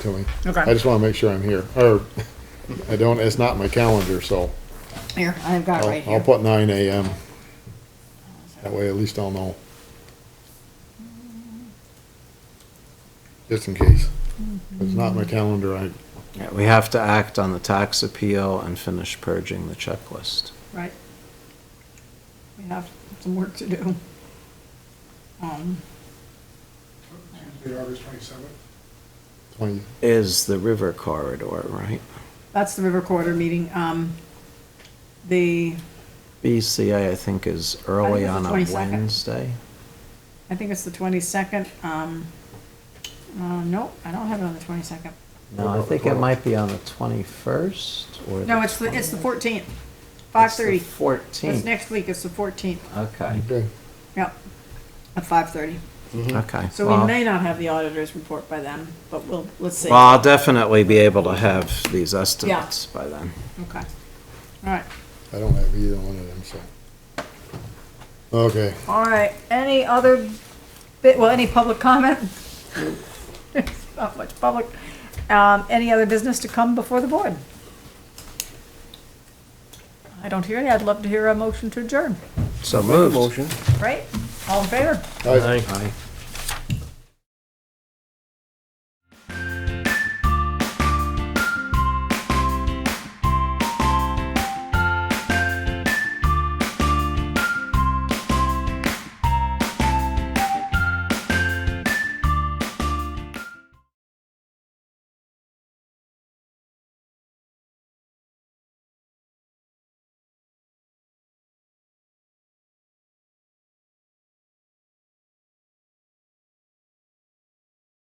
to me. Okay. I just want to make sure I'm here, or I don't, it's not in my calendar, so Here, I've got it right I'll, I'll here. put nine AM. That way at least I'll know. Just in case. If it's Mm-hmm. not in my calendar, I, Yeah, We have to act on the tax appeal and finish purging the checklist. Right. We have some work to do. Um, Tuesday, August twenty-seventh. twenty, Is the river corridor, right? That's the River Corridor meeting. Um, The, BCA, I think, is early I on think a it's the 22nd. Wednesday. I think it's the 22nd. Um, uh, Nope, I don't have it on the 22nd. No, I think it might be on the 21st or. No, it's the, it's the 14th, 5:30. 5:30. It's 14th. next week, it's the 14th. Okay, okay. Yep, at 5:30. okay. So we Well- may not have the auditor's report by then, but we'll, let's see. Well, I'll definitely be able to have these estimates by then. Okay. All right. I don't have either one of them, so. Okay, All right, any other bit, well, any public comment? Not much public. Um, any other business to come before the board? I don't hear any. I'd love to hear a motion to adjourn, So moved. right? All in favor? I- Aye.